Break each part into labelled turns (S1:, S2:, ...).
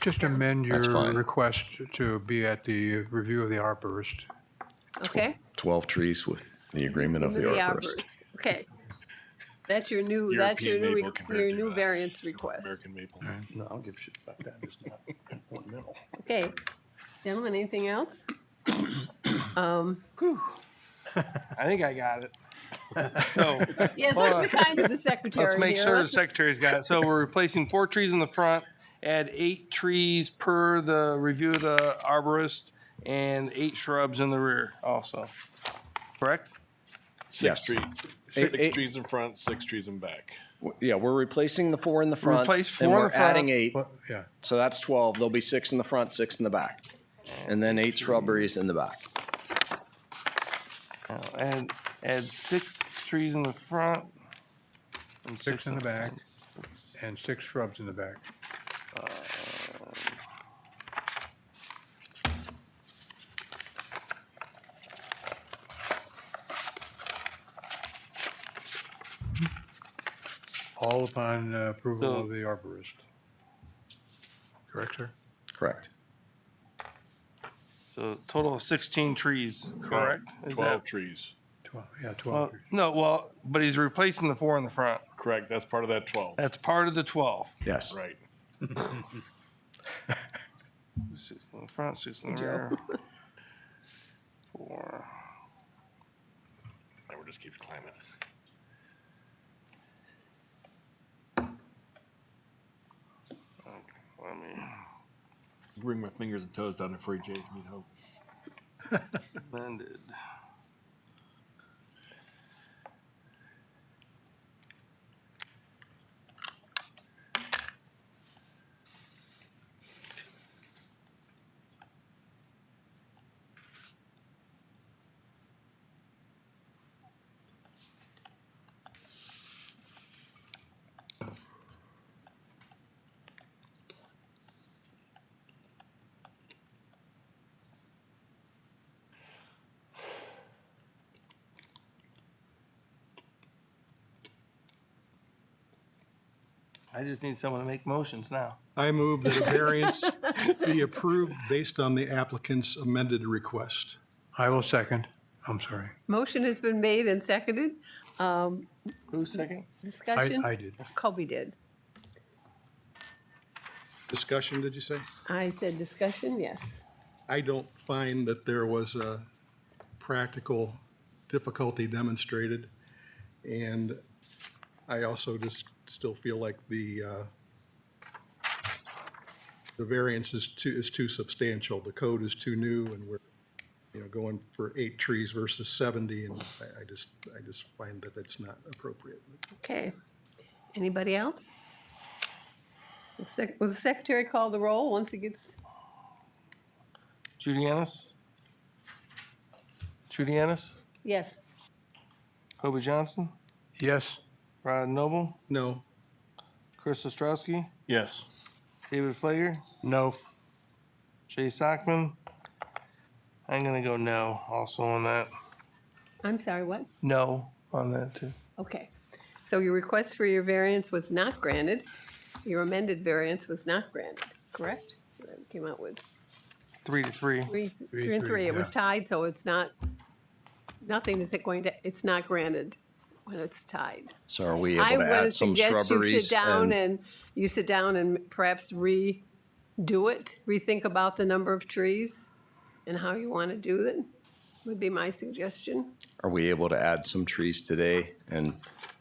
S1: Just amend
S2: That's
S1: your
S2: fine.
S1: request to be at the review of the arborist.
S3: Okay?
S2: 12 trees with the agreement of the arborist.
S3: Okay. That's your new, that's your
S4: European
S3: new,
S4: maple
S3: re-
S4: compared
S3: your
S4: to,
S3: new
S4: uh,
S3: variance request.
S4: American maple.
S5: No, I don't give a shit about that. It's not ornamental.
S3: Okay. Gentlemen, anything else?
S6: I think I got it. So
S3: Yes, let's be kind to the secretary
S6: let's make
S3: here.
S6: sure the
S3: Let's-
S6: secretary's got it. So we're replacing four trees in the front, add eight trees per the review of the arborist, and eight shrubs in the rear also. Correct?
S2: Yes.
S4: Six trees,
S2: Eight- eight-
S4: six trees in front, six trees in back.
S2: W- Yeah, we're replacing the four in the front.
S6: Replace
S2: and
S6: four in
S2: we're
S6: the front.
S2: Adding eight,
S1: Well, yeah.
S2: so that's 12. There'll be six in the front, six in the back. And then eight shrubberies in the back.
S6: Uh, And add six trees in the front. And
S1: Six in the back.
S6: Six.
S1: And six shrubs in the back. Um, All upon uh, approval
S6: So-
S1: of the arborist. Correct, sir?
S2: Correct.
S6: So total of sixteen trees, correct? Is
S4: Twelve
S6: that,
S4: trees.
S1: Twelve, yeah,
S6: well,
S1: twelve.
S6: no, well, but he's replacing the four in the front.
S4: Correct, that's part of that twelve,
S6: That's part of the twelve.
S2: Yes.
S4: right?
S6: Six in the front, six in the
S3: Joe.
S6: rear. Four.
S4: And we're just keep climbing.
S6: Let me,
S4: Bring my fingers and toes down to free J's meat hope.
S6: blended. I just need someone to make motions now.
S7: I move that a variance be approved based on the applicant's amended request.
S1: I will second. I'm sorry.
S3: Motion has been made and seconded. Um,
S6: Who's second?
S1: I,
S3: discussion?
S1: I did.
S3: Colby did.
S7: Discussion, did you say?
S3: I said discussion, yes.
S7: I don't find that there was a practical difficulty demonstrated. And I also just still feel like the, uh, the variance is too, is too substantial. The code is too new and we're, you know, going for eight trees versus 70. And I, I just, I just find that it's not appropriate.
S3: Okay. Anybody else? The sec- Will the secretary call the roll once it gets,
S6: Judianus? Judianus?
S3: yes,
S6: Kobe Johnson?
S1: Yes,
S6: Rod Noble?
S7: No,
S6: Chris Ostrowski?
S4: Yes.
S6: David Flager? No. Jay Sockman? I'm gonna go no also on that.
S3: I'm sorry, what?
S6: No on that too.
S3: Okay, so your request for your variance was not granted. Your amended variance was not granted, correct? That Came out with
S6: Three to three.
S3: three, three and
S1: three,
S3: three. It was
S1: yeah.
S3: tied, so it's not, nothing is it going to, it's not granted when it's tied.
S2: So are we
S3: I
S2: able to
S3: would
S2: add some
S3: suggest you sit
S2: shrubberies?
S3: down and, you sit down and perhaps redo it, rethink about the number of trees and how you want to do it, would be my suggestion.
S2: Are we able to add some trees today and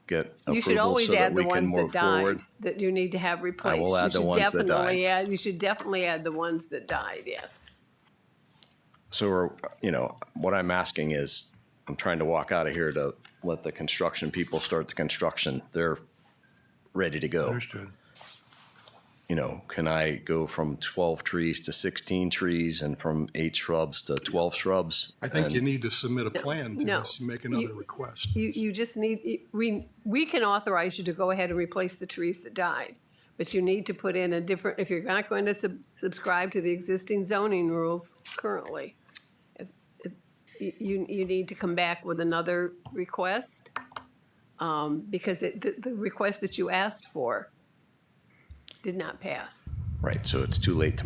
S2: get
S3: You should
S2: approval
S3: always
S2: so that
S3: add the
S2: we can
S3: ones that
S2: move forward?
S3: died that you need to have replaced. You
S2: add the
S3: should
S2: ones that died.
S3: definitely add- You should definitely add the ones that died, yes.
S2: So, we're, you know, what I'm asking is, I'm trying to walk out of here to let the construction people start the construction. They're ready to go.
S1: understood.
S2: You know, can I go from 12 trees to 16 trees and from eight shrubs to 12 shrubs?
S7: I think you
S2: And-
S7: need to submit a plan to
S3: no.
S7: us, and make another
S3: You-
S7: request.
S3: You, you just need, we, we can authorize you to go ahead and replace the trees that died. But you need to put in a different, if you're not going to sub- subscribe to the existing zoning rules currently, if- if- you, you need to come back with another request. Um, because it, the, the request that you asked for did not pass.
S2: Right, so it's too late to